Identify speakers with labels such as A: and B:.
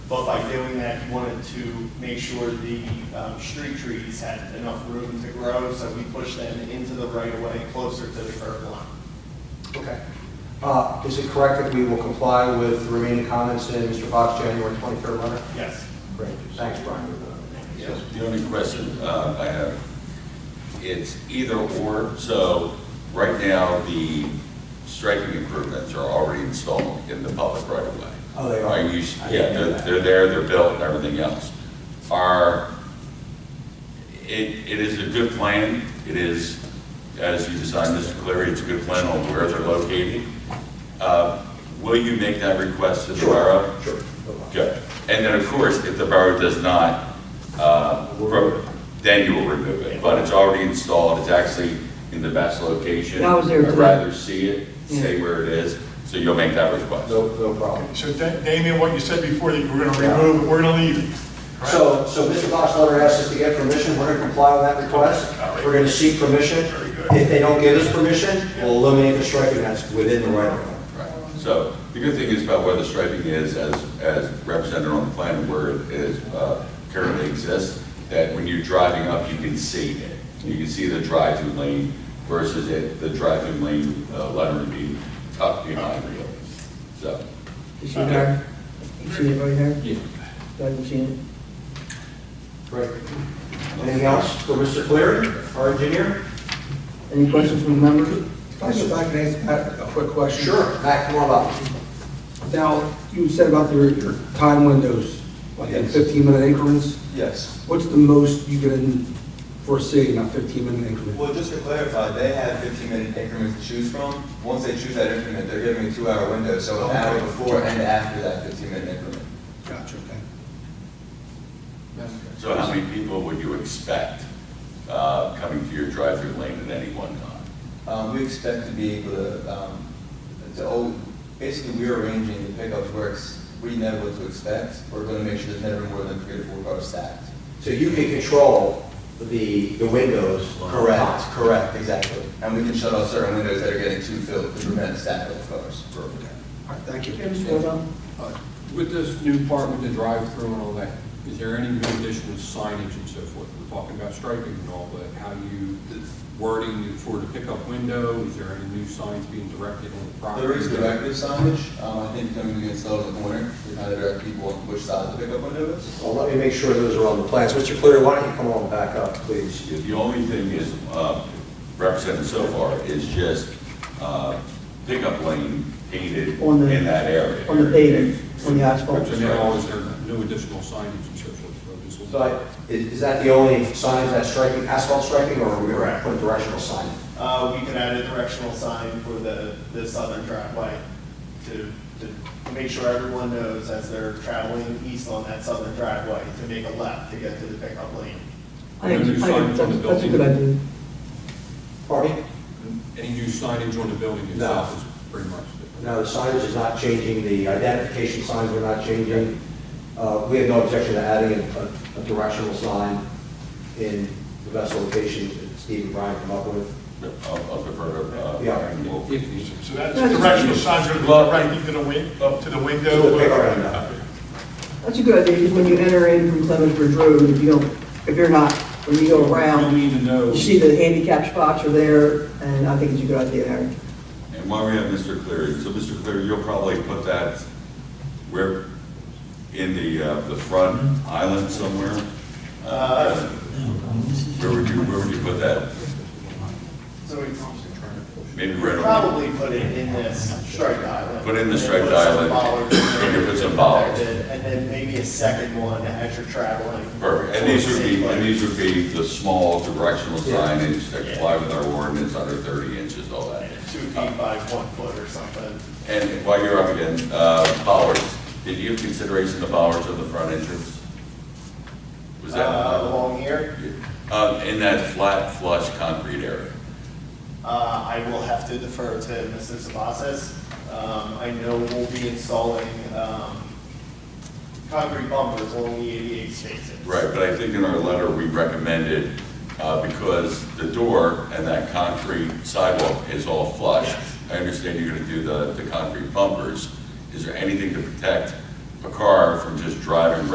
A: But by doing that, he wanted to make sure the um, street trees had enough room to grow, so we pushed them into the right of way closer to the curb line.
B: Okay. Uh, Is it correct that we will comply with the remaining comments in Mr. Bach's January 23rd letter?
A: Yes.
B: Great, thanks, Brian.
C: The only question uh, I have, it's either or, so right now, the striping improvements are already installed in the public right of way.
B: Oh, they are?
C: you-
B: I didn't know
C: Yeah, they're,
B: that.
C: they're there, they're built and everything else. Are, it, it is a good plan, it is, as you designed, Mr. Cleary, it's a good plan on where they're located. Uh, Will you make that request to the borough?
B: Sure.
C: Good. And then, of course, if the borough does not, uh, re- then you will remove it. But it's already installed, it's actually in the best location.
D: I was there
C: I'd
D: today.
C: rather see it,
D: Yeah.
C: say where it is, so you'll make that request.
B: No, no problem.
E: So Da- Damian, what you said before, that you we're going to remove, it, we're going to leave it. correct?
B: So, so Mr. Bach's letter asks us to get permission, we're going to comply with that request. We're going to seek permission. If they don't give us permission, we'll eliminate the striping that's within the right of way.
C: Right. So the good thing is about where the striping is, as, as represented on the plan, where it is, uh, currently exists, that when you're driving up, you can see it. You can see the drive-through lane versus it, the drive-through lane uh, lettering being tucked behind you. So,
D: You see it there? You see it right there?
C: yeah.
D: Go ahead and see it.
B: Great. Anything else for Mr. Cleary, our engineer?
D: Any questions from the members?
F: If I could- if I could ask Pat a quick question.
B: Matt, come on up.
F: Now, you said about your your time windows, like in
B: Yes.
F: 15-minute increments.
G: Yes.
F: What's the most you can foresee in a 15-minute increment?
G: Well, just to clarify, they have 15-minute increments to choose from. Once they choose that increment, they're giving a two-hour window, so an hour before and after that 15-minute increment.
F: Gotcha, okay.
C: So how many people would you expect uh, coming to your drive-through lane at any one time?
G: Um, We expect to be able to, um, to, al- basically, we're arranging the pickups where it's, we know what to expect. We're going to make sure there's never more than three or four cars stacked.
B: So you can control the, the windows.
G: Correct, correct, exactly. And we can shut off certain windows that are getting too filled to prevent a stack of cars.
F: All right, thank you.
H: Uh, With this new part with the drive-through and all that, is there any new additional signage and so forth? We're talking about striping and all, but how you, the wording for the pickup window, is there any new signs being directed on the property?
G: There is directive signage, um, I think coming to install in the corner, to kind of direct people on which side the pickup window is.
B: Well, let me make sure those are on the plans. Mr. Cleary, why don't you come on back up, please?
C: The the only thing is uh, represented so far is just uh, pickup lane painted
D: On the-
C: in that area.
D: on the pavement, on the asphalt.
C: Which
H: So
C: is
H: now,
G: Oh,
C: right.
H: is there new additional signage and so forth? for this one?
B: So I- is, is that the only sign that's striking, asphalt striking, or are we going to
A: Correct.
B: put a directional sign? in?
A: Uh, we could add a directional sign for the, the southern driveway to, to make sure everyone knows as they're traveling east on that southern driveway to make a left to get to the pickup lane.
D: I think, I think that's that's a good idea.
B: Pardon? me?
H: Any new signage on the building itself is pretty much different.
B: No, the signage is not changing, the identification signs are not changing. Uh, we have no objection to adding a, a directional sign in the best location that Steve and Brian come up with.
C: I'll I'll defer to. uh,
B: Yeah.
C: Aaron. We'll-
H: If needed.
E: So that's the directional signs are going to go right into the win, to the
B: So the pickup
E: window.
B: window.
D: That's a good idea, because when you enter in from Clement Bridge Road, if you don't, if you're not, when you go
H: You'll
D: around,
H: need to know.
D: you see the handicap spots are there, and I think it's a good idea, Harry.
C: And while we have Mr. Cleary, so Mr. Cleary, you'll probably put that where, in the, uh, the front island somewhere? Uh, Where would you, where would you put that?
A: So it's
C: Maybe right on.
A: probably put it in this striped island.
C: Put in the
A: And
C: striped
A: put some
C: island.
A: bollards in there
C: And you put some
A: to protect
C: bollards.
A: it, And then maybe a second one as you're traveling.
C: Perfect, and these would be, and these would be the small directional signage that comply with our ordinance under thirty inches, all that.
A: Two feet by one foot or something.
C: And while you're up again, uh, bollards, did you have consideration of bollards on the front entrance? Was that?
A: Uh, Along here,
C: Um, in that flat flush concrete area?
A: uh, I will have to defer to Mr. Sabatis. Um, I know we'll be installing, um, concrete bumpers along the 88 spaces.
C: Right, but I think in our letter, we recommended, uh, because the door and that concrete sidewalk is all flush.
A: Yes.
C: I understand you're gonna do the, the concrete bumpers. Is there anything to protect a car from just